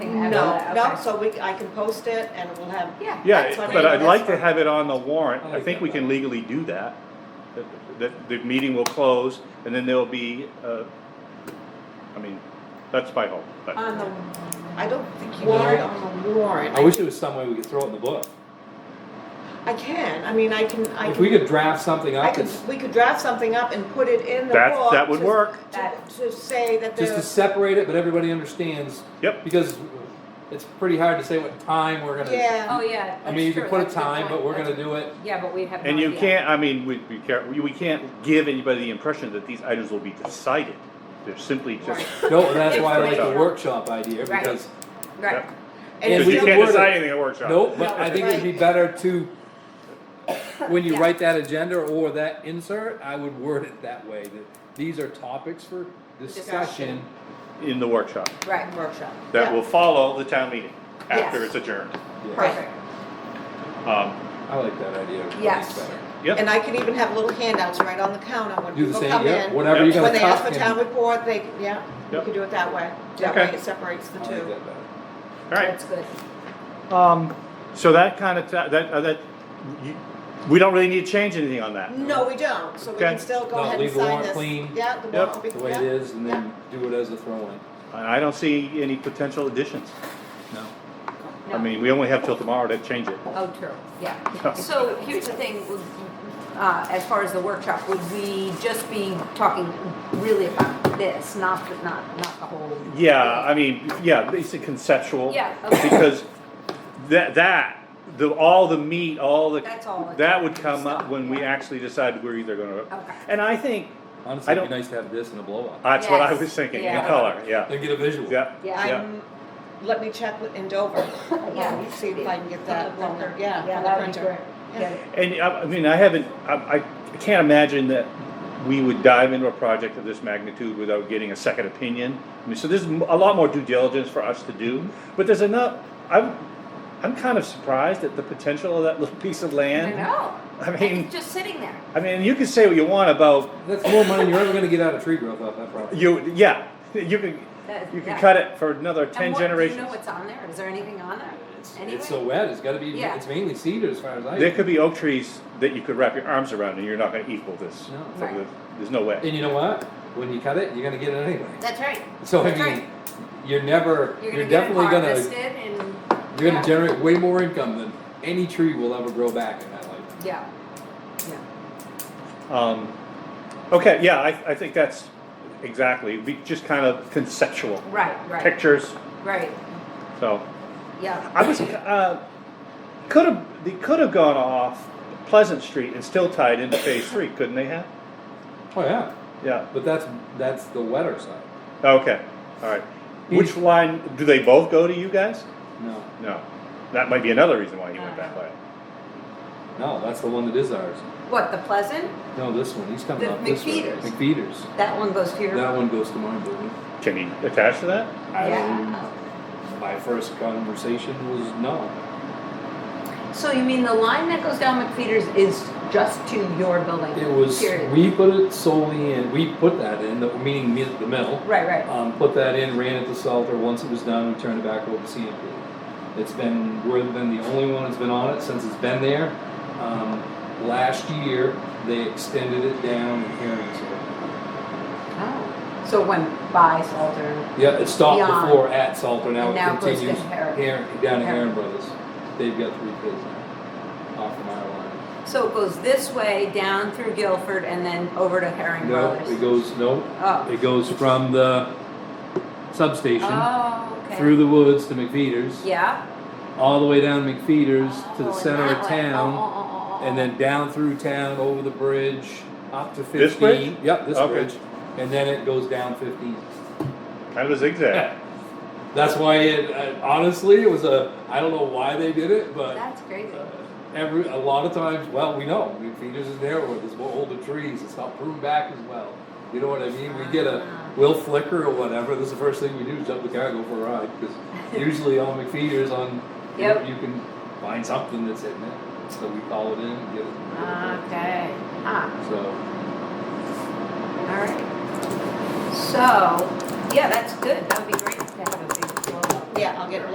have No, that, no, okay. so we, I can post it and we'll have, Yeah. that's Yeah, fine. but I'd like to That's have it on the warrant, Oh, I I like think that we can better. legally do that. That- That, the meeting will close, and then there'll be, uh, I mean, that's my hope, but. Uh, on the, I don't think you Warrant. can on the warrant. I wish there was some way we could throw it in the book. I can, I mean, I can, I can. If we could draft something I up, could, that's- we could draft something up and put it in the That- book. that would to- work. To to say that just to there's, separate it, but everybody understands. Yep. Because it's pretty hard to say what time we're gonna. yeah, Oh, yeah. I mean, that's you true, could put a that's good time, point, but we're that's gonna do it. Yeah, but we'd have. And no you idea. can't, I mean, we, we can't, we- we can't give anybody the impression that these items will be decided. They're simply just, Right. No, that's why I like Right. the workshop idea, Right. because, Right. and because If if we you you, could can't word it. decide anything at workshop. no, but I think it'd be Right. better to, when you Yeah. write that agenda or that insert, I would word it that way, that these are topics for discussion. Discussion. In the workshop, Right. workshop. that Yeah. will follow the town meeting after Yes. it's adjourned. Yeah, Perfect. Um, I like that idea. I think Yes. it's better. And I can even have little handouts right on the counter when Do the people same, come yeah, in. whatever you're Yeah. gonna When they ask cut. for in. town report, they, yeah, you Yep. could do it that way. That way Okay. it separates the I like two. that better. all right, That's good. um, so that kind of, ta- that, uh, that, you, we don't really need to change anything on that. No, we don't, so we Okay. can still go No, ahead and sign this. leave the warrant clean. Yeah, the Yep. warrant will be, The way it yeah. is, and then do it as a throw-in. And I don't see any potential additions. No. No. I mean, we only have till tomorrow to change it. Oh, true, yeah. So here's the thing, would- uh, as far as the workshop, would we just be talking really about this, not, the- not, not the whole? Yeah, I mean, yeah, it's a conceptual. Yeah, okay. Because that, that, the, all the meat, all the. That's all. That would come up when we actually decide we're either gonna. Okay. And I think, Honestly, it'd don't- be nice to have this in a blow-up. that's what I Yes, was thinking, in yeah. color, yeah, Then get a visual. yeah, Yeah. yeah. I'm, let me check with- in Dover, Yeah. see if I can get that, From the printer. yeah, Yeah, from the that'd be printer. great. Yeah. Yeah. And I, I mean, I haven't, I, I can't imagine that we would dive into a project of this magnitude without getting a second opinion. I mean, so there's m- a lot more due diligence for us to do, but there's enough, I'm, I'm kind of surprised at the potential of that little piece of I land. know. I mean- And it's just sitting there. I mean, you can say what you want about That's more money than you're ever gonna get out of tree growth off that property. you. Yeah, you can That- you can yeah. cut it for another ten And what- generations. Do you know what's on there? Is there anything on there? It's, Anyway? it's so wet, it's gotta be, Yeah. it's mainly cedar as far as I. there could be oak trees that you could wrap your arms around, and you're not going to equal this. No. So Right. there's, there's no way. And you know what? When you cut it, you're gonna get it anyway. That's right. So I That's mean, right. you're never, you're gonna get it definitely harvested gonna, and. you're yeah. gonna generate way more income than any tree will ever grow back in that life. Yeah, yeah. Um, okay, yeah, I, I think that's exactly be just kind of conceptual Right, right, pictures. right, So yeah. I was uh, could have they could have gone off Pleasant Street and still tied into Phase Three, couldn't they have? Oh, yeah, Yeah. but that's, that's the wetter side. Okay. All right. Which line do they both go to? You guys? No, No, that might be another reason why you went that way. no, that's the one that is ours. What, the Pleasant? No, this one, he's coming The up this way. McFeeters. McFeeters. That one goes to your, That one goes to mine, building. Can you attach to that? I Yeah. Um, My first conversation was no. Um, so you mean the line that goes down McFeeters is just to your building? It was, Period. we put it solely in, we put that in, the- meaning me- the mill. Right, right, Um, put that in, ran it to Salter, once it was done, we turned it back over to CMP. It's been, we've been the only one that's been on it since it's been there. Um, last year, they extended it down in Harrington. oh, so it went by Salter, Yeah, it stopped Beyond. before at Salter, now And now it it goes to continues. Harrington. Harrington, down to Harrington. Heron Brothers, they've got three kids now, off of our line. so it goes this way, down through Guilford, and then over to Herring No, Brothers? it goes, no, Oh, it goes from the substation, oh, okay. through the woods to McFeeters, Yeah? all the way down McFeeters Oh, to the in center of that way. town, Oh, oh, oh, oh, oh. and then down through town, over the bridge, up to This fifteen. bridge? Yep, this Okay. bridge, and then it goes down fifteen. Kind of a zigzag. That's why it, I- honestly, it was a, I don't know why they did it, but That's crazy. uh, every, a lot of times, well, we know, McFeeters is there, where there's more older trees, it's not pruned back as well. You know what I mean? We get a, Ah. we'll flicker or whatever, this is the first thing we do, is jump the car, and go for a ride, because usually on McFeeters on, you know, Yep. you can find something that's hitting it, so we call it in and get it. Okay, ah. So, Alright, so, yeah, that's good, that'd be great to have a big blow up. Yeah, I'll get